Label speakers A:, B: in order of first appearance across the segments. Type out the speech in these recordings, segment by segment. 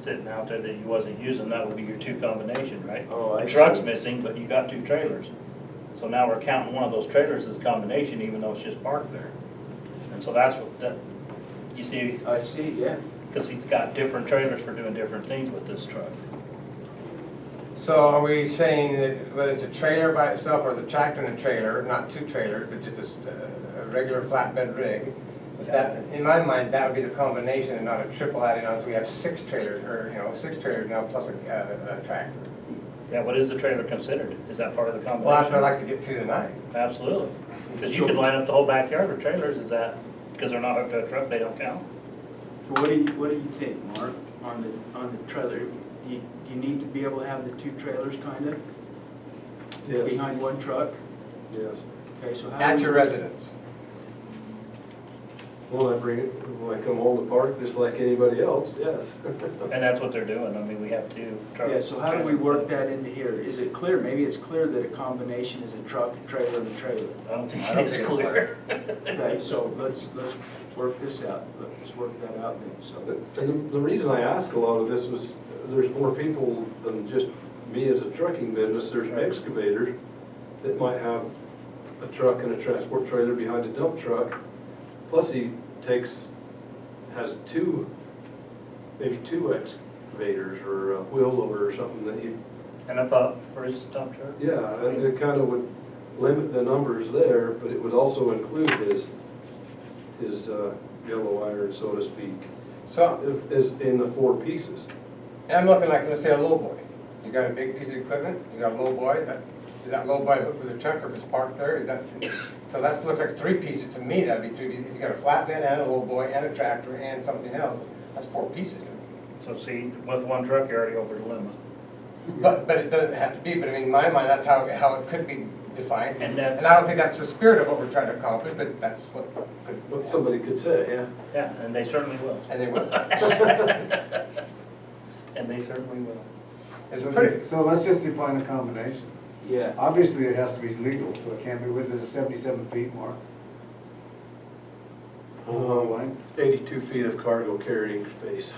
A: sitting out there that you wasn't using, that would be your two combination, right?
B: Oh, I
A: The truck's
B: see.
A: missing, but you got two trailers. So now we're counting one of those trailers as a combination, even though it's just parked there. And so that's what, that, you see,
B: I see, yeah.
A: because he's got different trailers for doing different things with this truck.
C: So are we saying that whether it's a trailer by itself or the tractor and a trailer, not two trailers, but just a, s- a- a regular flatbed rig? that That, in my mind, that would be the combination and not a triple added on, so we have six trailers, or, you know, six trailers now plus a, a, a tractor.
A: Yeah, what is the trailer considered? Is that part of the
C: Well, that's
A: combination?
C: what I'd like to get to tonight.
A: Absolutely. Because you could line up the whole backyard with trailers, is that, because they're not hooked to a truck, they don't count?
B: So What do you, what do you think, Mark, on the, on the trailer? You, you need to be able to have the two trailers kind of
D: Yes,
B: behind one truck?
D: yes.
B: Okay, so how?
C: At
B: do
C: your
B: you-
C: residence.
D: When I bring it, when I come home to park, just like anybody else, yes.
A: And that's what they're doing. I mean, we have two trucks.
B: Yeah, so how do we work that into here? Is it clear, maybe it's clear that a combination is a truck, a trailer, and a trailer?
A: I don't think
C: I don't
A: it's
C: think it's
A: clear.
B: Okay, so let's, let's work this out, let's work that out then, so.
D: And the- the reason I ask a lot of this was, there's more people than just me as a trucking business, there's excavators that might have a truck and a transport trailer behind a dump truck, plus he takes, has two, maybe two excavators or a wheel loader or something that he
A: And a pup for his dump truck?
D: Yeah, and it kind of would limit the numbers there, but it would also include his, his uh, yellow iron, so to speak,
C: So,
D: if- is in the four pieces.
C: I'm looking like, let's say, a lowboy. You got a big piece of equipment, you got a lowboy, that, is that lowboy hooked with a truck or if it's parked there, is that? So that looks like three pieces, to me, that'd be three, pieces. if you got a flatbed and a lowboy and a tractor and something else, that's four pieces.
A: So see, with one truck, you're already over the limit.
C: But, but it doesn't have to be, but I mean, in my mind, that's how, how it could be defined.
A: And that's-
C: I don't think that's the spirit of what we're trying to accomplish, but that's what could.
D: But somebody could say, yeah,
A: Yeah, and they certainly will.
C: And they would.
A: And they certainly will.
C: It's
E: So-
C: pretty,
E: So let's just define a combination.
B: Yeah.
E: Obviously, it has to be legal, so it can't be, was it a seventy-seven feet mark?
D: Um, eighty-two feet of cargo carrying space.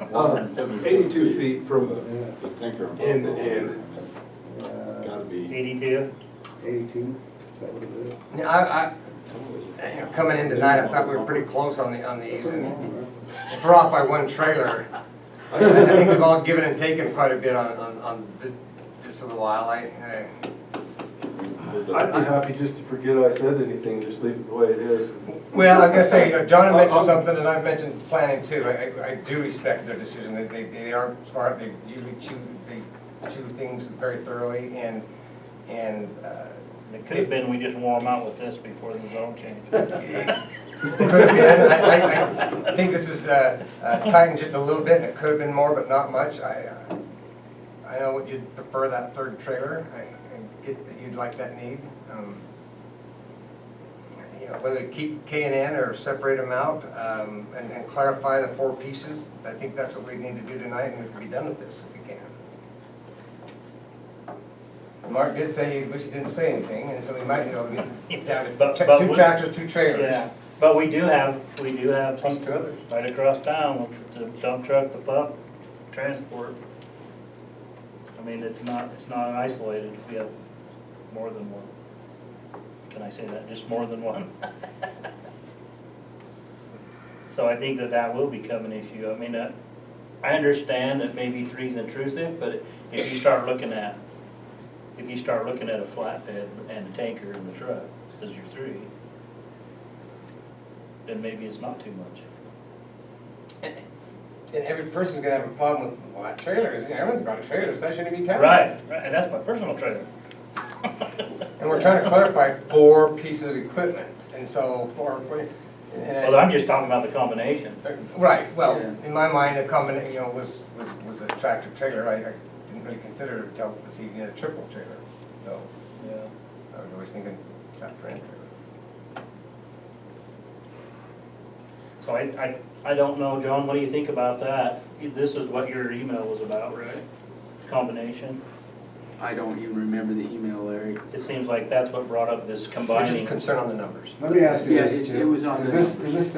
D: Uh, Eighty-two feet from
F: The tanker.
D: end to end.
F: It's Gotta be.
A: Eighty-two?
E: Eighty-two, Uh, that would have been.
C: I, I, you know, coming in tonight, I thought we were pretty close on the, on these and If we're off by one trailer, I think we've all given and taken quite a bit on, on, on th- this for the while, I, I-
D: I'd be happy just to forget I said anything, just leave it the way it is.
C: well, I was gonna say, you know, John had mentioned something, and I've mentioned planning too, I, I- I do respect their decision, they, they, they are smart, they usually chew, they chew things very thoroughly, and, and, uh,
A: It could have been, we just wore them out with this before the zone change.
C: Could have been, I, I, I think this is, uh, uh, tightened just a little bit, and it could have been more, but not much, I, uh, I know what you'd prefer that third trailer, I, I get that you'd like that need, um. You know, whether to keep K and N or separate them out, um, and, and clarify the four pieces, I think that's what we need to do tonight, and we can be done with this if we can. Mark did say he wish he didn't say anything, and so we might, you know, be down to
A: But-
C: tra-
A: but
C: two
A: we-
C: tractors, two trailers.
A: Yeah, but we do have, we do have
C: Plus
A: some
C: two others.
A: right across town with the dump truck, the pup, transport. I mean, it's not, it's not isolated, we have more than one. Can I say that, just more than one? So I think that that will become an issue, I mean, uh, I understand that maybe three's intrusive, but if you start looking at, if you start looking at a flatbed and a tanker in the truck, as your three, then maybe it's not too much.
C: And every person's gonna have a problem with, well, that trailer, is- everyone's got a trailer, so that shouldn't be counted.
A: Right, right, and that's my personal trailer.
C: And we're trying to clarify four pieces of equipment, and so four, four. and-
A: Well, I'm just talking about the combination.
C: Right, well,
B: Yeah.
C: in my mind, a combination, you know, was, was, was a tractor trailer, I, I didn't really consider it until this evening, a triple trailer, so
A: Yeah.
C: I was always thinking tractor and trailer.
A: So I, I, I don't know, John, what do you think about that? This is what your email was about, right? Combination.
B: I don't even remember the email, Larry.
A: It seems like that's what brought up this
C: We're just
A: combining.
C: concerned on the numbers.
E: Let me ask you
B: Yeah,
E: this,
B: it-
E: Jim.
B: it was on
E: Does
B: the
E: this,
B: numbers.
E: does this